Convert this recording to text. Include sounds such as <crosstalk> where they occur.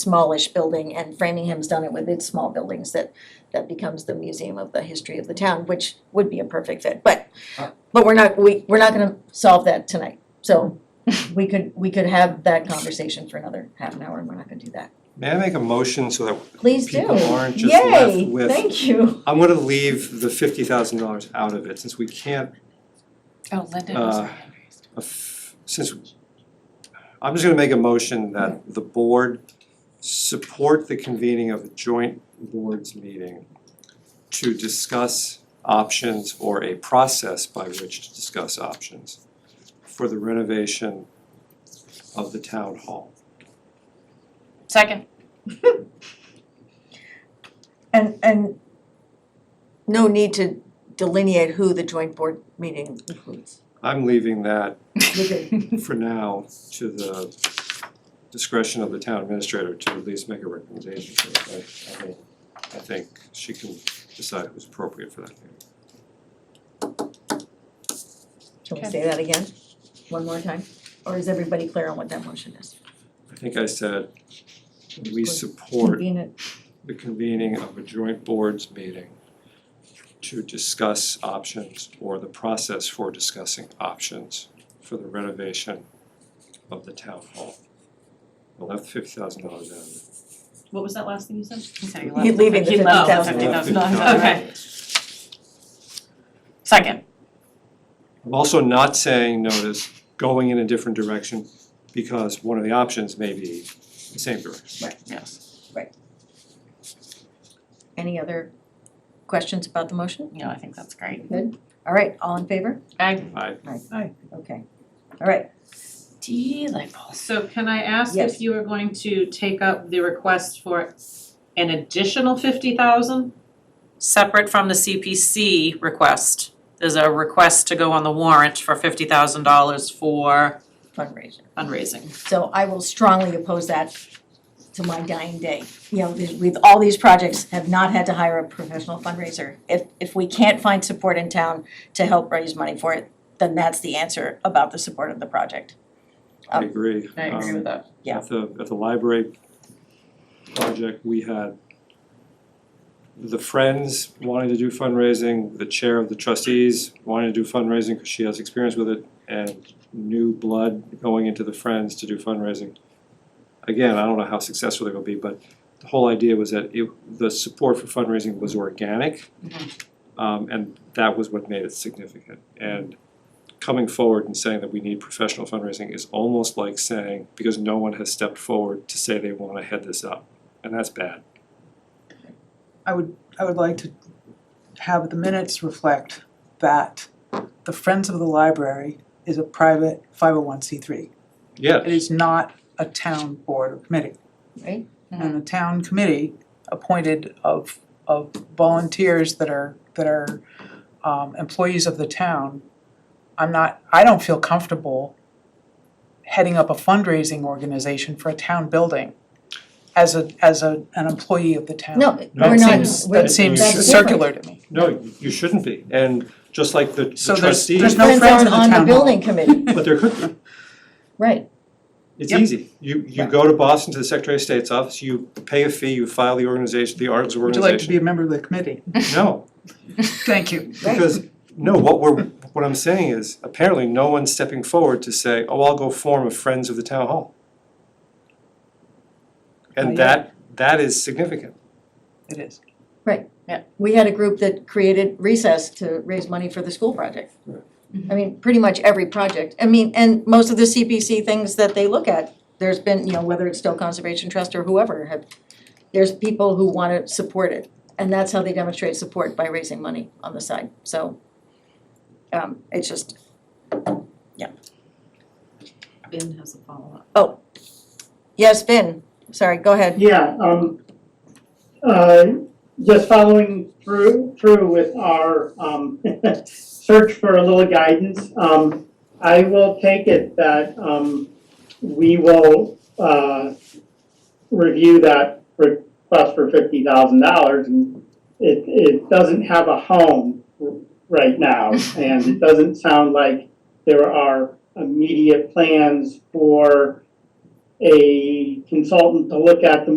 smallish building, and Framingham's done it with its small buildings that, that becomes the museum of the history of the town, which would be a perfect fit, but, but we're not, we, we're not gonna solve that tonight. So we could, we could have that conversation for another half an hour, and we're not gonna do that. May I make a motion so that, Please do. People aren't just left Yay, with- thank you. I'm gonna leave the fifty thousand dollars out of it, since we can't, Oh, Linda Uh, was raised. aff- since, I'm just gonna make a motion that the board support the convening of a joint boards meeting to discuss options or a process by which to discuss options for the renovation of the town hall. Second. And, and no need to delineate who the joint board meeting <laughs> includes. I'm leaving that You could- for now to the discretion of the town administrator to at least make a recommendation for it, but I mean, I think she can decide who's appropriate for that. Can we Okay. say that again, one more time? Or is everybody clear on what that motion is? I think I said, we support Convene it. the convening of a joint boards meeting to discuss options or the process for discussing options for the renovation of the town hall. I left fifty thousand dollars out of it. What was that last thing you Oh, said? He said he You're left. leaving the He fifty left. thousand. I left <laughs> $50,000, $50,000 out of okay. it. Second. I'm also not saying notice going in a different direction because one of the options may be the same direction. Yes. Any other questions about the motion? No, I think that's great. All right, all in favor? I. I Okay. All right, Delightful. So can I ask Yes. if you are going to take up the request for an additional fifty thousand? Separate from the CPC request, there's a request to go on the warrant for fifty thousand dollars for fundraiser. fundraising. So I will strongly oppose that to my dying day. You know, these- we've, all these projects have not had to hire a professional fundraiser. If, if we can't find support in town to help raise money for it, then that's the answer about the support of the project. I agree. Um, that. Yeah. At the at the library project, we had the friends wanting to do fundraising, the chair of the trustees wanting to do fundraising because she has experience with it, and new blood going into the friends to do fundraising. Again, I don't know how successful they're gonna be, but the whole idea was that it, the support for fundraising was organic. Um, and that was what made it significant. And coming forward and saying that we need professional fundraising is almost like saying, because no one has stepped forward to say they wanna head this up, and that's bad. I would, I would like to have the minutes reflect that the Friends of the Library is a private five oh one C three. It Yeah, is not a town board or committee. Right. Mm-hmm. And the town committee appointed of, of volunteers that are, that are um, employees of the town. I'm not, I don't feel comfortable heading up a fundraising organization for a town building as a, as a, an employee of the town. No, No, we're That not, seems, we're, that you seems should- That's different. circular to me. no, you shouldn't be, and just like the the So there's- there's trustees, no friends friends aren't of the on the town hall. building committee, <laughs> but there could be, right, it's Yep. easy. You you Right. go to Boston to the Secretary of State's office, you pay a fee, you file the organization, the articles of Would you like to organization. be a member of the committee? No, Thank you. Because, no, what we're, what I'm saying is, apparently no one's stepping forward to say, oh, I'll go form a Friends of the Town Hall. And Not that, that is significant. It is. we had a group that created recess to raise money for the school project. Right. I mean, pretty much every project, I mean, and most of the CPC things that they look at, there's been, you know, whether it's Stowe Conservation Trust or whoever, have, there's people who wanna support it, and that's how they demonstrate support, by raising money on the side, so. Um, it's just, Ben has a follow-up. yes, Vin, sorry, go ahead, Yeah, um, uh, just following through, through with our, um, <laughs> search for a little guidance, um, I will take it that, um, we will, uh, review that request for fifty thousand dollars, and it, it doesn't have a home r- right now, and it doesn't sound like there are immediate plans for a consultant to look at the